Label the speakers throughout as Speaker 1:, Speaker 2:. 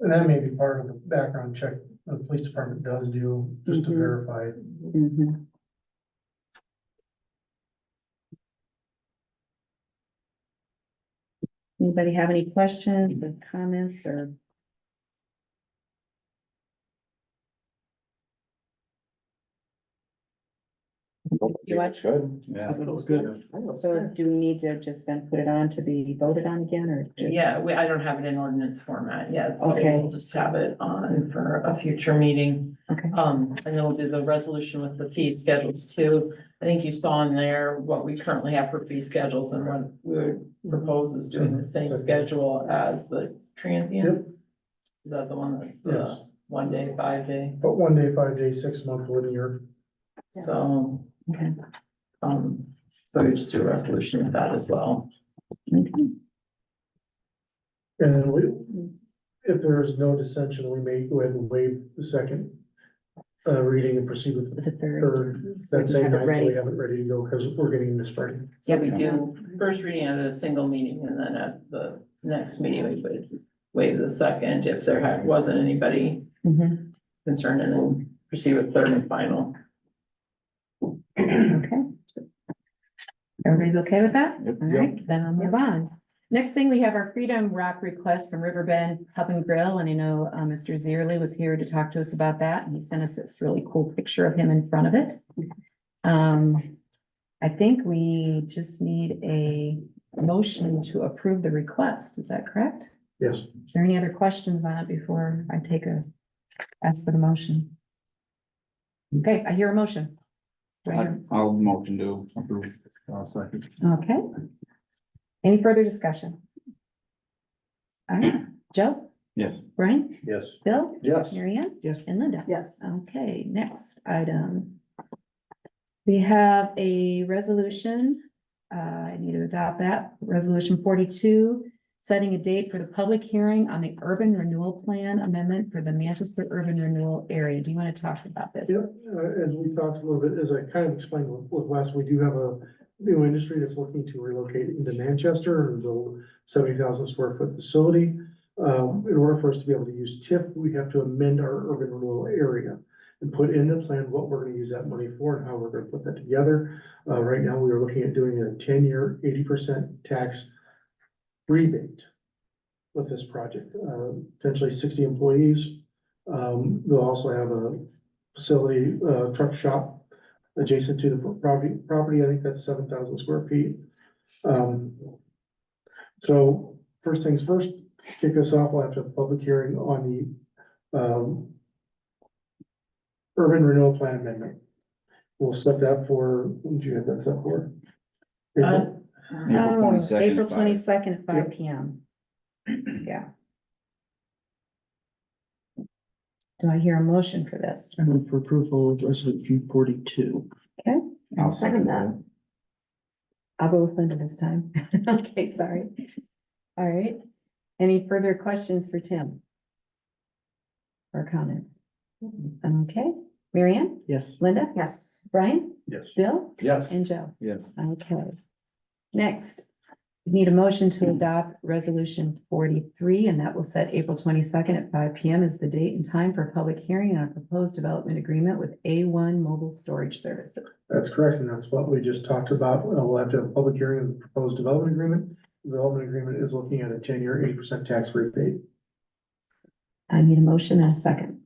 Speaker 1: And that may be part of the background check the police department does do, just to
Speaker 2: Mhm.
Speaker 1: verify.
Speaker 2: Mhm. Anybody have any questions or comments or? You want-
Speaker 3: Good. Yeah.
Speaker 2: That looks good. So do we need to just then put it on to be voted on again or? to-
Speaker 4: Yeah, we, I don't have it in ordinance format yet, so
Speaker 2: Okay.
Speaker 4: we'll just have it on for a future meeting.
Speaker 2: Okay,
Speaker 4: Um, and it'll do the resolution with the fee schedules too. I think you saw in there what we currently have for fee schedules and what we would propose is doing the same schedule as the transients. Is that the one that's
Speaker 1: Yes.
Speaker 4: the one day, five day?
Speaker 1: But one day, five day, six month, one year.
Speaker 2: Yeah.
Speaker 4: So,
Speaker 2: okay,
Speaker 4: um, so we just do a resolution with that as well.
Speaker 2: okay.
Speaker 1: And then we, if there is no dissension, we may go ahead and waive the second uh, reading and proceed with the
Speaker 2: The third.
Speaker 1: third. That same
Speaker 2: Have it
Speaker 1: night,
Speaker 2: ready.
Speaker 1: we have it ready to go because we're getting into spring.
Speaker 4: So we do first reading at a single meeting and then at the next meeting, we would waive the second if there had- wasn't anybody
Speaker 2: Mhm,
Speaker 4: concerned and then proceed with third and final.
Speaker 2: Okay. Everybody's okay with that?
Speaker 3: Yep.
Speaker 2: All right, then I'll move on. Next thing, we have our Freedom Rock request from Riverbend Pub and Grill, and I know uh, Mr. Zierli was here to talk to us about that, and he sent us this really cool picture of him in front of it. Um, I think we just need a motion to approve the request, is that correct?
Speaker 1: Yes.
Speaker 2: Is there any other questions on it before I take a, ask for the motion? Okay, I hear a motion. Do I hear-
Speaker 3: I'll motion to approve. I'll second.
Speaker 2: Okay. Any further discussion? All right, Joe,
Speaker 3: Yes.
Speaker 2: Brian,
Speaker 1: Yes.
Speaker 2: Bill,
Speaker 3: Yes.
Speaker 2: Mary Ann,
Speaker 1: Yes.
Speaker 2: and Linda.
Speaker 5: Yes.
Speaker 2: Okay, next item. We have a resolution. uh, I need to adopt that. Resolution forty-two, setting a date for the public hearing on the urban renewal plan amendment for the Manchester urban renewal area. Do you want to talk about this?
Speaker 1: Yeah, uh, as we talked a little bit, as I kind of explained with with Wes, we do have a new industry that's looking to relocate into Manchester and build seventy thousand square foot facility. Um, in order for us to be able to use TIP, we have to amend our urban renewal area and put in the plan what we're gonna use that money for and how we're gonna put that together. Uh, right now, we are looking at doing a ten-year, eighty percent tax rebate with this project, uh, potentially sixty employees. Um, they'll also have a facility, uh, truck shop adjacent to the property, property, I think that's seven thousand square feet. Um, so first things first, kick this off, we'll have to have a public hearing on the, um, urban renewal plan amendment. We'll set that for, when do you have that set for?
Speaker 4: Uh,
Speaker 1: April?
Speaker 3: April
Speaker 2: Oh,
Speaker 3: 22nd at
Speaker 2: April
Speaker 3: five.
Speaker 2: twenty-second at five
Speaker 1: Yep.
Speaker 2: P M. Yeah. Do I hear a motion for this?
Speaker 6: I move for approval of resolution forty-two.
Speaker 2: Okay,
Speaker 3: I'll second that.
Speaker 2: I'll go with Linda this time. Okay, sorry. All right. Any further questions for Tim? Or comment?
Speaker 3: Mm-hmm.
Speaker 2: Okay, Marianne,
Speaker 6: Yes.
Speaker 2: Linda? Yes. Brian,
Speaker 1: Yes.
Speaker 2: Bill,
Speaker 3: Yes.
Speaker 2: and Joe?
Speaker 3: Yes.
Speaker 2: Okay. Next, we need a motion to adopt resolution forty-three, and that will set April twenty-second at five P M as the date and time for public hearing on a proposed development agreement with A one Mobile Storage Services.
Speaker 1: That's correct, and that's what we just talked about. Uh, We'll have to have a public hearing of the proposed development agreement. The Development agreement is looking at a ten-year, eighty percent tax rebate.
Speaker 2: I need a motion and a second.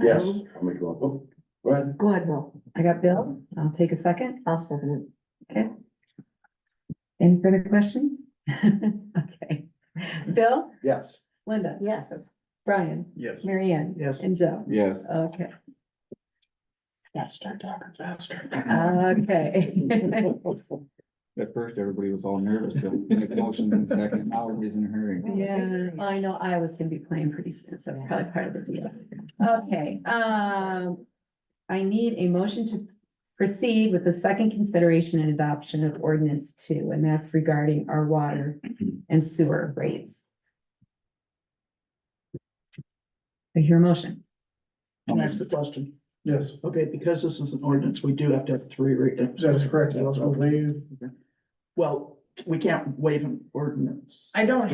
Speaker 3: Yes. I'll make one. Oh, Go ahead.
Speaker 5: Go ahead, Bill.
Speaker 2: I got Bill. I'll take a second.
Speaker 5: I'll second
Speaker 2: Any further questions? Okay. Bill,
Speaker 3: Yes.
Speaker 2: Linda,
Speaker 5: it. Yes.
Speaker 2: Brian,
Speaker 1: Yes.
Speaker 2: Mary Ann,
Speaker 6: Yes.
Speaker 2: and Joe.
Speaker 3: Yes.
Speaker 2: Okay,
Speaker 1: Gotta start talking faster.
Speaker 2: okay.
Speaker 3: At first, everybody was all nervous to make motion in second. Now everybody's in a hurry.
Speaker 2: Yeah,
Speaker 5: Agreed.
Speaker 2: I know Iowa's gonna be playing pretty soon, so that's probably part of the deal. Okay, um, I need a motion to proceed with the second consideration and adoption of ordinance two, and that's regarding our water and sewer rates. I hear a motion.
Speaker 6: Can
Speaker 3: Um,
Speaker 6: I ask a question?
Speaker 1: Yes,
Speaker 6: Okay, because this is an ordinance, we do have to have three readings.
Speaker 1: that's correct. And also waive
Speaker 6: Well, we can't waive an ordinance.
Speaker 4: I don't